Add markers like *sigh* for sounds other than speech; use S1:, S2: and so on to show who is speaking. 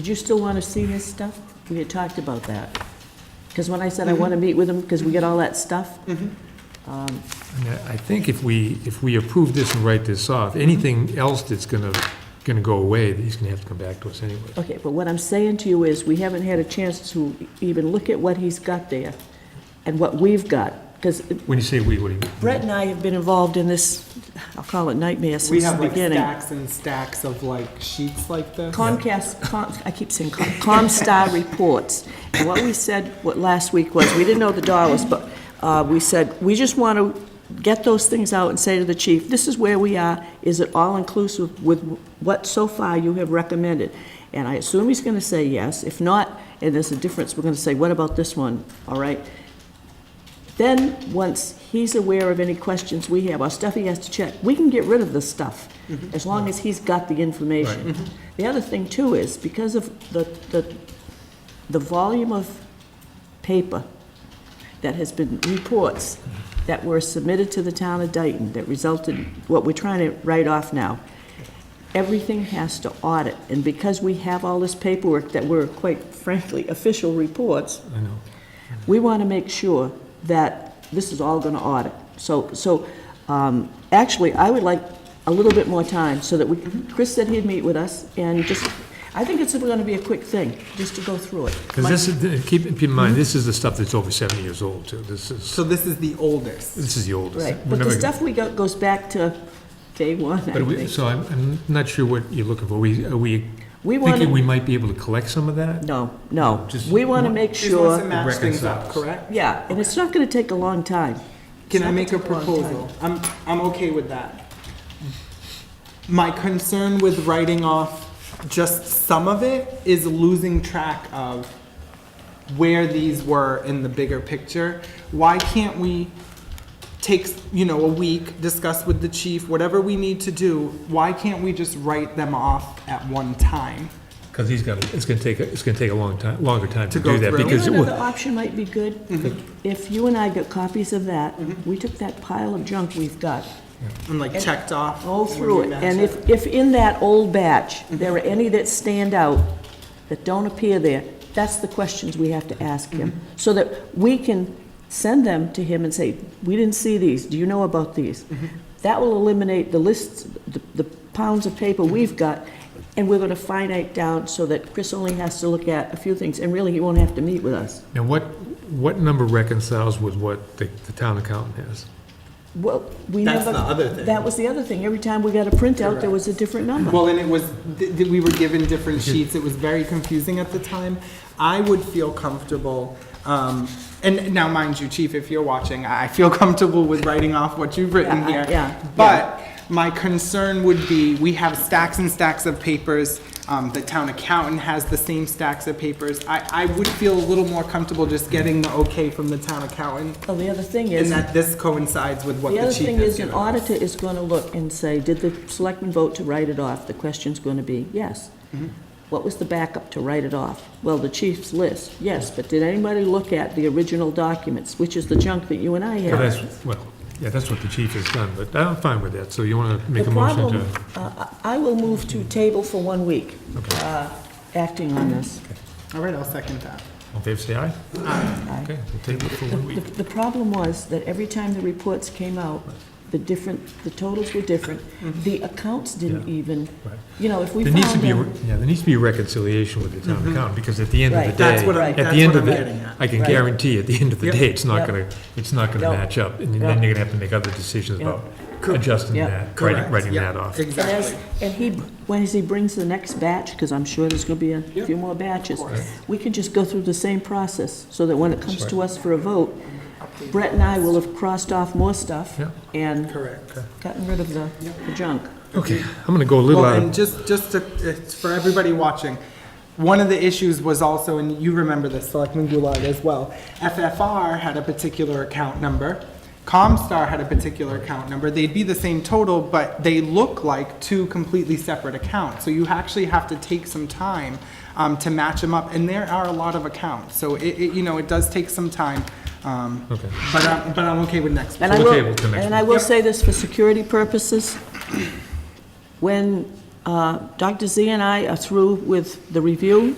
S1: Did you still want to see his stuff? We had talked about that. Because when I said
S2: Mm-hmm.
S1: I want to meet with him, because we get all that stuff, um,
S3: I mean, I think if we, if we approve this and write this off, anything else that's gonna, gonna go away, he's gonna have to come back to us anyway.
S1: Okay, but what I'm saying to you is, we haven't had a chance to even look at what he's got there and what we've got, because
S3: When you say we, what do you mean?
S1: Brett and I have been involved in this, I'll call it nightmare
S2: We
S1: since the
S2: have like
S1: beginning.
S2: stacks and stacks of like sheets like this.
S1: Comcast, Com- I keep saying Com- ComStar reports. And what we said, what last week was, we didn't know the dollars, but uh, we said, we just want to get those things out and say to the chief, this is where we are. Is it all-inclusive with what so far you have recommended? And I assume he's going to say yes. If not, and there's a difference, we're going to say, what about this one? All right? Then, once he's aware of any questions we have, or stuff he has to check, we can get rid of the stuff, as long as he's got the information. The other thing too is, because of the, the, the volume of paper that has been, reports that were submitted to the town of Dayton that resulted, what we're trying to write off now, everything has to audit, and because we have all this paperwork that were quite frankly official reports,
S3: I know.
S1: we want to make sure that this is all going to audit. So, so um, actually, I would like a little bit more time so that we, Chris said he'd meet with us and just, I think it's going to be a quick thing, just to go through it.
S3: Because this is, keep, keep in
S1: Mm-hmm.
S3: mind, this is the stuff that's over seventy years old too. This is,
S2: So this is the oldest.
S3: this is the oldest.
S1: Right,
S3: We're
S1: but the
S3: never gonna-
S1: stuff we got goes back to day one, I
S3: But we,
S1: think.
S3: so I'm, I'm not sure what you're looking for. We, are we
S1: We want
S3: thinking we
S1: to,
S3: might be able to collect some of that?
S1: no, no,
S3: Just-
S1: we want to make
S2: She just wants to
S1: sure,
S2: match things up,
S3: Reconciles.
S2: correct?
S1: yeah, and it's not going to take a long time.
S2: Can
S1: It's
S2: I
S1: not
S2: make a
S1: gonna take long time.
S2: proposal? I'm, I'm okay with that. My concern with writing off just some of it is losing track of where these were in the bigger picture. Why can't we take, you know, a week, discuss with the chief, whatever we need to do, why can't we just write them off at one time?
S3: Because he's got, it's gonna take, a- it's gonna take a long time, longer time to
S2: To go
S3: do that
S2: through.
S3: because.
S1: You
S3: it
S1: know, another
S3: will-
S1: option might be good, if you and I got copies of that, we took that pile of junk we've got,
S2: And like checked off.
S1: all
S2: when
S1: through
S2: we
S1: it,
S2: match
S1: and if, if in that old batch, there are any that stand out, that don't appear there, that's the questions we have to ask him,
S2: Mm-hmm.
S1: so that we can send them to him and say, we didn't see these, do you know about these?
S2: Mm-hmm.
S1: That will eliminate the lists, the- the pounds of paper we've got, and we're gonna finite down so that Chris only has to look at a few things, and really, he won't have to meet with us.
S3: Now, what, what number reconciles with what the, the town accountant has?
S1: Well, we never.
S2: That's the other thing.
S1: That was the other thing. Every time we got a printout, there was a different number.
S2: Well, and it was, th- th- we were given different sheets, it was very confusing at the time. I would feel comfortable, um, and now mind you, chief, if you're watching, I I feel *laughs* comfortable with writing off what you've written
S1: Yeah, I-
S2: here.
S1: yeah,
S2: But my concern would be, we have stacks and stacks of papers, um, the town accountant has the same stacks of papers. I, I would feel a little more comfortable just getting the okay from the town accountant,
S1: Well, the other thing
S2: and
S1: is,
S2: that this coincides with what
S1: the
S2: the
S1: other
S2: chief
S1: thing
S2: has
S1: is an
S2: given.
S1: auditor is going to look and say, did the selectmen vote to write it off? The question's going to be, yes.
S3: Mm-hmm.
S1: What was the backup to write it off? Well, the chief's list, yes, but did anybody look at the original documents, which is the junk that you and I
S3: Well,
S1: have?
S3: that's, well, yeah, that's what the chief has done, but I'm fine with that. So you want to make
S1: The
S3: a motion
S1: problem,
S3: to?
S1: uh, I I will move to table for one week, uh, acting on this.
S2: All right, I'll second that.
S3: All in favor, say aye. Aye. Okay, we'll table it for one
S1: The,
S3: week.
S1: the problem was that every time the reports came out, the different, the totals were different. The accounts didn't
S3: Mm-hmm. Yeah.
S1: even,
S3: Right.
S1: you know, if we
S3: There needs to
S1: found
S3: be, a
S1: them.
S3: re- yeah, there needs to be a reconciliation with the town accountant, because at the end of the
S1: Right.
S3: day.
S2: That's what I'm-
S3: at
S2: that's
S3: the end of
S2: what I'm
S3: the-
S2: getting at.
S3: I can
S1: Right.
S3: guarantee, at the end of the
S2: Yep.
S3: day, it's
S1: Yep.
S3: not going to, it's not going to
S1: Yep.
S3: match up, and then
S1: Yep.
S3: you're going to have to make other decisions about
S2: Cor-
S3: adjusting
S1: Yep.
S3: that, writing,
S2: Correct.
S3: writing
S2: Yeah,
S3: that off.
S1: And as-
S2: Exactly.
S1: And he, when he brings the next batch, because I'm sure there's gonna be a few more batches, we can just go through the same process, so that when it comes to us for a vote, Brett and I will have crossed off more stuff
S3: Yeah.
S1: and
S2: Correct.
S1: gotten rid of the, the junk.
S3: Okay, I'm going to go a little
S2: Well,
S3: out of
S2: and just, just to, it's for everybody watching, one of the issues was also, and you remember this, Selectman Goulart as well, FFR had a particular account number, Comstar had a particular account number, they'd be the same total, but they look like two completely separate accounts, so you actually have to take some time um, to match them up, and there are a lot of accounts, so it, it, you know, it does take some time, um,
S3: Okay.
S2: but I'm, but I'm okay with next.
S1: And I
S3: So we'll
S1: will,
S3: table till next
S1: and I
S3: week.
S1: will say this for security purposes. When Uh, Dr. Z and I are through with the review.